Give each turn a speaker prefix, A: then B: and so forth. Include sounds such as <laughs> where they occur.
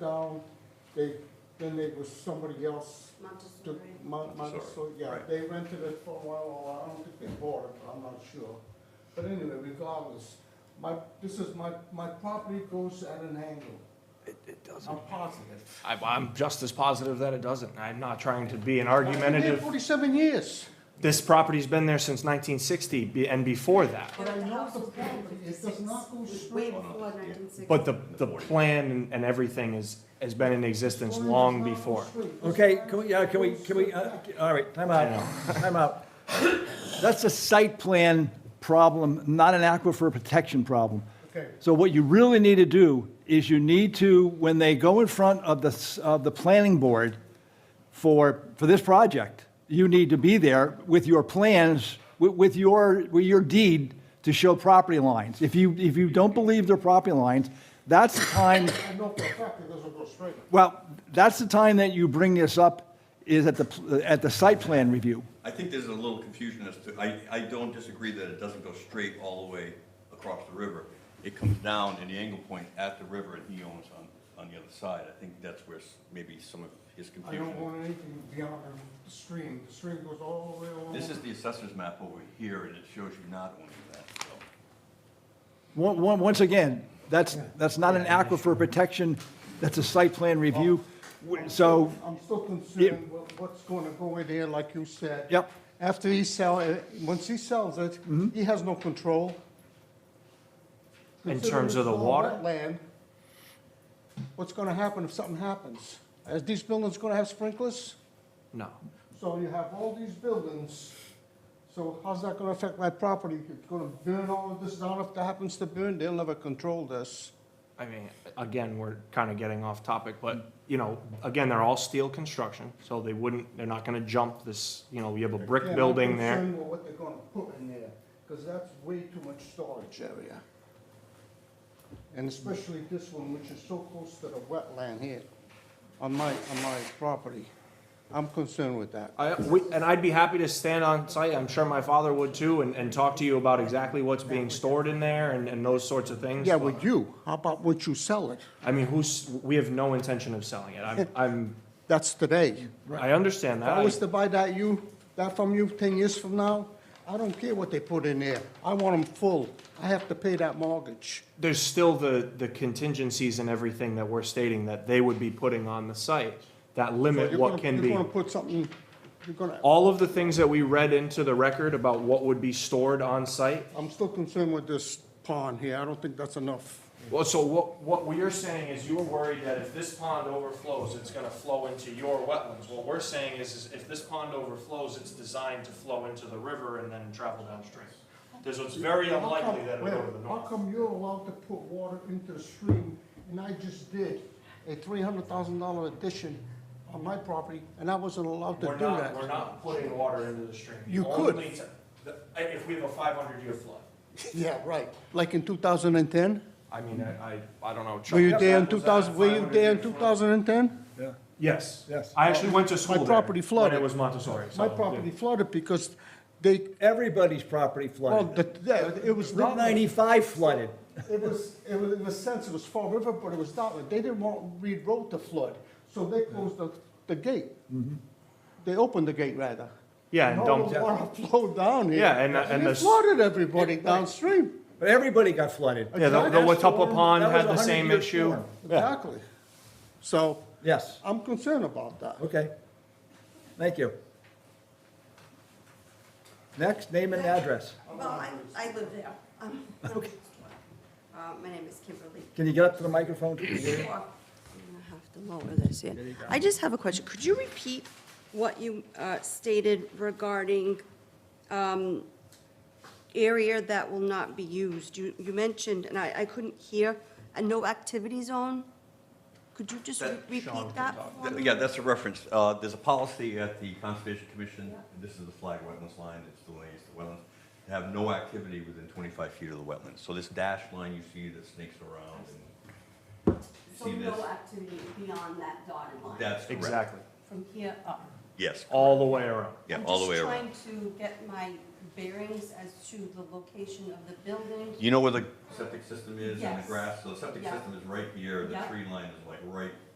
A: down, they, then they was somebody else
B: Montessori.
A: took Mount
C: Montessori,
A: Montessor, yeah,
C: right.
A: they rented it for a while, or I don't think they bought it, but I'm not sure. But anyway, regardless, my, this is my, my property goes at an angle,
C: It, it doesn't.
A: I'm positive.
C: I, I'm just as positive that it doesn't. I'm not trying to be an
A: I've been there
C: argumentative.
A: Forty-seven years,
C: This property's been there since 1960 be- and before that.
A: but I
B: The
A: know
B: house
A: the
B: was built in
A: property, it does not go
B: It's
A: straight.
B: Way before nineteen sixty.
C: But the, the plan and- and everything is, has been in existence long before.
D: Okay, can we, yeah, can we, can we, uh, all right, time out, time out. That's a site plan problem, not an aquifer protection problem.
A: Okay.
D: So what you really need to do is you need to, when they go in front of the, s- of the planning board for, for this project, you need to be there with your plans, with, with your, with your deed to show property lines. If you, if you don't believe they're property lines, that's the time
A: I know for a fact it doesn't go straight.
D: well, that's the time that you bring this up, is at the, at the site plan review.
E: I think there's a little confusion as to, I, I don't disagree that it doesn't go straight all the way across the river. It comes down in the angle point at the river and he owns on, on the other side. I think that's where s- maybe some of his
A: I don't
E: confusion.
A: want anything beyond the stream, the stream goes all the way along.
E: This is the assessor's map over here and it shows you not owning that, so.
D: One- one- Once again, that's, that's not an aquifer protection, that's a site plan review. So,
A: I'm still concerned what- what's gonna go in there, like you said.
D: Yep.
A: After he sell, it, once he sells it,
C: Mm-hmm.
A: he has no control.
C: In
A: Considering
C: terms of
A: it's
C: the
A: all
C: water?
A: wetland, What's gonna happen if something happens? Are these buildings gonna have sprinklers?
C: No.
A: So you have all these buildings, so how's that gonna affect my property? It's gonna burn all of this down if that happens to burn, they'll never control this.
C: I mean, again, we're kind of getting off topic, but, you know, again, they're all steel construction, so they wouldn't, they're not going to jump this, you know, you have a
A: Yeah,
C: brick
A: I'm
C: building there.
A: concerned with what they're gonna put in there, because that's way too much storage area. And especially this one, which is so close to the wetland here, on my, on my property. I'm concerned with that.
C: I, we, and I'd be happy to stand on site, I'm sure my father would too, and, and talk to you about exactly what's being stored in there and, and those sorts of things.
A: Yeah,
C: but-
A: with you, how about once you sell it?
C: I mean, who's, we have no intention of selling it. I'm,
A: <laughs>
C: I'm,
A: That's today.
C: I understand
A: If I was
C: that.
A: to buy that you, that from you ten years from now, I don't care what they put in there. I want them full. I have to pay that mortgage.
C: There's still the, the contingencies and everything that we're stating that they would be putting on the site that
A: So
C: limit
A: you're
C: what
A: gonna-
C: can be.
A: You're gonna put something, you're gonna,
C: All of the things that we read into the record about what would be stored on site.
A: I'm still concerned with this pond here. I don't think that's enough.
C: Well, so what, what we are saying is you were worried that if this pond overflows, it's gonna flow into your wetlands. What we're saying is, is if this pond overflows, it's designed to flow into the river and then travel downstream. There's, it's very
A: How come-
C: unlikely that it'll go to the
A: wait,
C: north.
A: How come you're allowed to put water into the stream and I just did a three hundred thousand dollar addition on my property and I wasn't allowed to
C: We're
A: do
C: not,
A: that?
C: we're not putting water into the stream.
A: You could.
C: Only to- the- eh, If we have a five hundred year flood.
A: Yeah, right. Like in two thousand and ten?
C: I mean, I, I, I don't know.
A: Were you there in two thousand, were you there in two thousand and ten?
C: Yes.
D: Yes.
C: I actually went to school there.
A: property flooded.
C: When it was Montessori, so.
A: My
C: yeah.
A: property flooded because they,
D: everybody's property
A: well,
D: flooded.
A: the, yeah, it was
D: Route
A: not, it
D: 95 flooded.
A: was, it was, in a sense, it was Fall River, but it was not, they didn't want Reed Road to flood, so they closed the, the gate. They opened the gate rather.
C: Yeah, Mm-hmm. and
A: all
C: dumped.
A: the water flowed down here.
C: Yeah, and- and
A: it
C: the-
A: flooded everybody downstream.
D: But everybody got flooded.
C: Yeah, the, the
A: That was
C: Watuppa Pond
D: That was
C: had the
D: a
C: same
D: 100-year
C: issue.
D: storm.
A: Exactly. So,
D: Yes,
A: I'm concerned about that.
D: okay. Thank you. Next, name and address.
B: Well, I, I live there.
A: <laughs>
B: Um, Uh, my name is Kimberly.
D: Can you get up to the microphone? Yes,
B: Well, I'm gonna have to lower this here. I just have a question. Could you repeat what you uh, stated regarding um, area that will not be used? You, you mentioned, and I, I couldn't hear, a no activity zone? Could you just re-
E: That-
B: repeat that for me?
E: Yeah, that's a reference. Uh, there's a policy at the Conservation Commission, and this is the flag wetlands line, it's delineates the wetlands, to have no activity within twenty-five feet of the wetlands. So this dashed line you see that snakes around and you
B: So
E: see this.
B: no activity beyond that dotted line?
E: That's correct.
C: Exactly.
B: From here up?
E: Yes,
C: All the way around.
E: yeah, all the way around.
B: I'm just trying to get my bearings as to the location of the building?
E: You know where the septic system is and the
B: Yes.
E: grass, so the septic
B: Yeah.
E: system is right here, the
B: Yeah.
E: tree line is like right